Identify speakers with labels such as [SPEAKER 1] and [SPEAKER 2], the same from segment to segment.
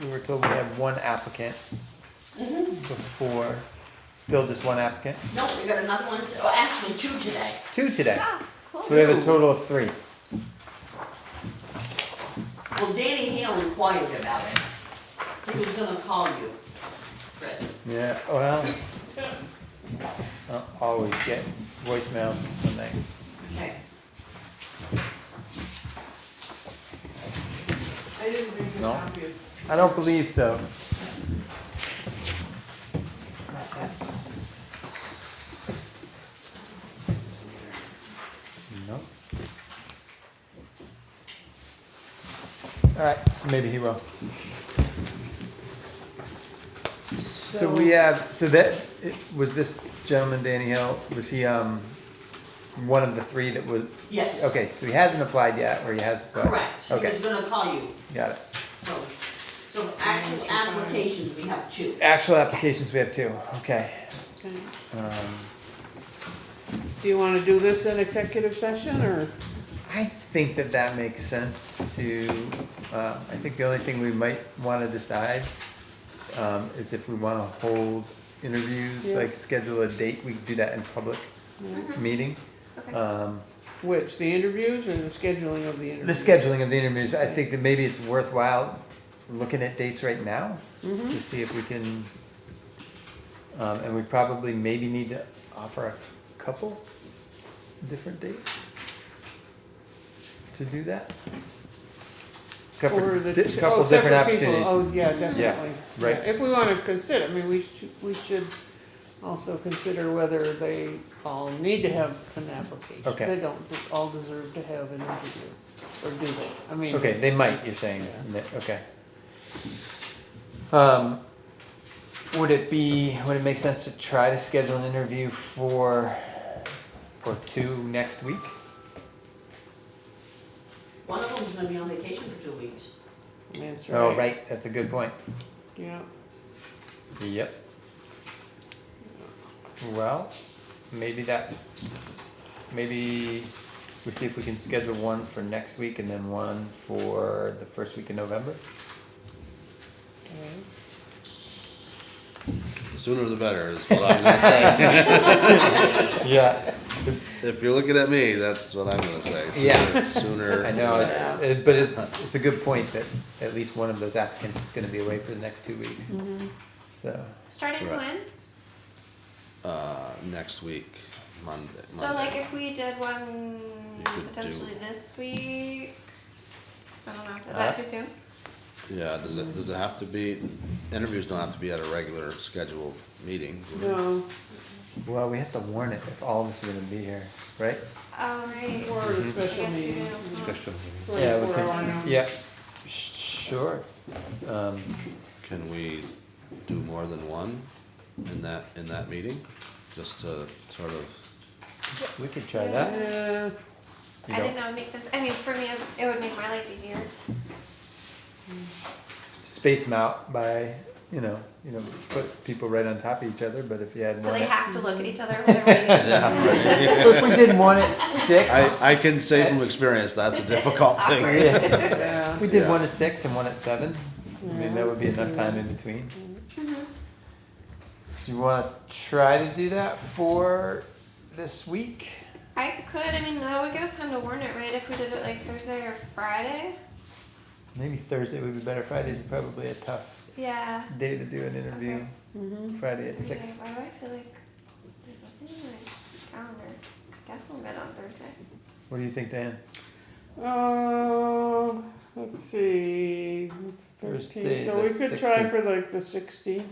[SPEAKER 1] we were told we had one applicant Mm-hmm. before, still just one applicant,
[SPEAKER 2] No, we got another one, to- oh, actually two today.
[SPEAKER 1] two today.
[SPEAKER 3] Oh, cool.
[SPEAKER 1] So we have a total of three.
[SPEAKER 2] Well, Danny Hale inquired about it. He was gonna call you, Chris.
[SPEAKER 1] Yeah, well, I always get voicemails when they,
[SPEAKER 2] Okay.
[SPEAKER 4] I didn't bring this
[SPEAKER 1] No.
[SPEAKER 4] up here.
[SPEAKER 1] I don't believe so. Unless that's. Nope. Alright, so maybe he will. So we have, so that, it- was this gentleman, Danny Hill, was he, um, one of the three that was,
[SPEAKER 2] Yes.
[SPEAKER 1] okay, so he hasn't applied yet, or he has applied?
[SPEAKER 2] Correct. He was
[SPEAKER 1] Okay,
[SPEAKER 2] gonna call you,
[SPEAKER 1] got it.
[SPEAKER 2] so, so actual applications, we have two.
[SPEAKER 1] Actual applications, we have two, okay.
[SPEAKER 4] Okay.
[SPEAKER 1] Um,
[SPEAKER 4] Do you wanna do this in executive session, or?
[SPEAKER 1] I think that that makes sense to, uh, I think the only thing we might wanna decide, um, is if we wanna hold interviews,
[SPEAKER 4] Yeah.
[SPEAKER 1] like schedule a date, we could do that in public
[SPEAKER 2] Mm-hmm.
[SPEAKER 1] meeting.
[SPEAKER 3] Okay.
[SPEAKER 1] Um,
[SPEAKER 4] Which, the interviews or the scheduling of
[SPEAKER 1] the
[SPEAKER 4] the interviews?
[SPEAKER 1] scheduling of the interviews, I think that maybe it's worthwhile looking at dates right now
[SPEAKER 4] Mm-hmm.
[SPEAKER 1] to see if we can, um, and we probably maybe need to offer a couple different dates to do that. Couple
[SPEAKER 4] Or the
[SPEAKER 1] di-
[SPEAKER 4] two-
[SPEAKER 1] couple
[SPEAKER 4] oh,
[SPEAKER 1] different
[SPEAKER 4] separate people.
[SPEAKER 1] opportunities.
[SPEAKER 4] Oh, yeah, definitely.
[SPEAKER 1] right.
[SPEAKER 4] If we wanna consider, I mean, we should, we should also consider whether they all need to have an application.
[SPEAKER 1] Okay.
[SPEAKER 4] They don't all deserve to have an interview, or do they? I mean.
[SPEAKER 1] Okay, they might, you're saying, that- okay. Um, would it be, would it make sense to try to schedule an interview for, for two next week?
[SPEAKER 2] One of them's gonna be on vacation for two weeks.
[SPEAKER 4] That's right.
[SPEAKER 1] Oh, right, that's a good point.
[SPEAKER 4] Yeah,
[SPEAKER 1] Yep. Well, maybe that, maybe we see if we can schedule one for next week and then one for the first week in November.
[SPEAKER 4] okay.
[SPEAKER 5] Sooner the better is what I'm gonna say.
[SPEAKER 1] Yeah.
[SPEAKER 5] if you're looking at me, that's what I'm gonna say. Sooner,
[SPEAKER 1] Yeah.
[SPEAKER 5] Sooner.
[SPEAKER 1] I know, it- it- but it, it's a good point that at least one of those applicants is gonna be away for the next two weeks.
[SPEAKER 3] Mm-hmm.
[SPEAKER 1] So,
[SPEAKER 3] Starting
[SPEAKER 5] Right.
[SPEAKER 3] when?
[SPEAKER 5] Uh, next week, Monday.
[SPEAKER 3] So
[SPEAKER 5] Monday.
[SPEAKER 3] like if we did one
[SPEAKER 5] You could do-
[SPEAKER 3] potentially this week, I don't know, is
[SPEAKER 1] Uh,
[SPEAKER 3] that too soon?
[SPEAKER 5] yeah. Does it does it have to be? Interviews don't have to be at a regular scheduled meeting. do they?
[SPEAKER 4] No,
[SPEAKER 1] well, we have to warn it if all of us are gonna be here, right?
[SPEAKER 3] All right.
[SPEAKER 4] Um, or a
[SPEAKER 5] Mm-hmm.
[SPEAKER 3] I
[SPEAKER 4] special
[SPEAKER 3] guess we do.
[SPEAKER 4] meeting.
[SPEAKER 3] huh?
[SPEAKER 1] Yeah, we
[SPEAKER 4] 24
[SPEAKER 1] can,
[SPEAKER 4] hour.
[SPEAKER 1] yeah, Sh- sure. Um,
[SPEAKER 5] Can we do more than one in that in that meeting? Just to sort of.
[SPEAKER 1] we could try that,
[SPEAKER 4] Yeah,
[SPEAKER 1] you
[SPEAKER 3] I
[SPEAKER 1] know.
[SPEAKER 3] think that would make sense, I mean, for me, it would make my life easier.
[SPEAKER 1] space them out by, you know, you know, put people right on top of each other, but if you had
[SPEAKER 3] So
[SPEAKER 1] one
[SPEAKER 3] they
[SPEAKER 1] at,
[SPEAKER 3] have to look at each other when they're reading.
[SPEAKER 1] if we did one at six,
[SPEAKER 5] I, I can say from experience that's a difficult thing.
[SPEAKER 1] yeah,
[SPEAKER 4] yeah.
[SPEAKER 1] we did
[SPEAKER 5] Yeah.
[SPEAKER 1] one at six and one at seven. I mean, that would be enough time in between. Do you want to try to do that for this week?
[SPEAKER 3] I could, I mean, that would give us time to warn it, right, if we did it like Thursday or Friday?
[SPEAKER 1] Maybe Thursday would be better. Friday's probably a tough
[SPEAKER 3] Yeah.
[SPEAKER 1] day to do an interview.
[SPEAKER 4] Mhm.
[SPEAKER 1] Friday at
[SPEAKER 3] Thursday.
[SPEAKER 1] six.
[SPEAKER 3] Why do I feel like there's nothing in my calendar? I guess I'm good on Thursday.
[SPEAKER 1] What do you think, Dan?
[SPEAKER 4] Um, let's see, it's
[SPEAKER 1] Thursday,
[SPEAKER 4] thirteen, so
[SPEAKER 1] the
[SPEAKER 4] we could try
[SPEAKER 1] 16th.
[SPEAKER 4] for like the sixteenth.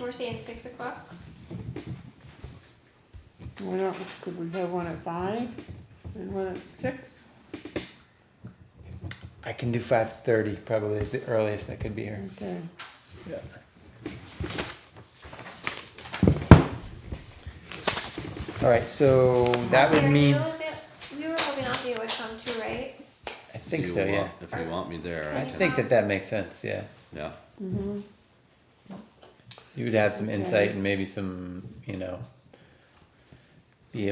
[SPEAKER 3] We're saying six o'clock?
[SPEAKER 4] Why not, could we have one at five and one at six?
[SPEAKER 1] I can do five thirty. Probably is the earliest I could be here.
[SPEAKER 4] Okay,
[SPEAKER 1] Yeah. All right, so that would
[SPEAKER 3] Mary,
[SPEAKER 1] mean,
[SPEAKER 3] you look at- We were hoping I'll be with them too, right?
[SPEAKER 1] I think
[SPEAKER 5] If you
[SPEAKER 1] so, yeah.
[SPEAKER 5] want- If you want me there, I
[SPEAKER 1] I
[SPEAKER 5] can.
[SPEAKER 1] think that that makes sense, yeah.
[SPEAKER 5] Yeah.
[SPEAKER 4] mm-hmm.
[SPEAKER 1] You would have some
[SPEAKER 4] Okay.
[SPEAKER 1] insight and maybe some, you know,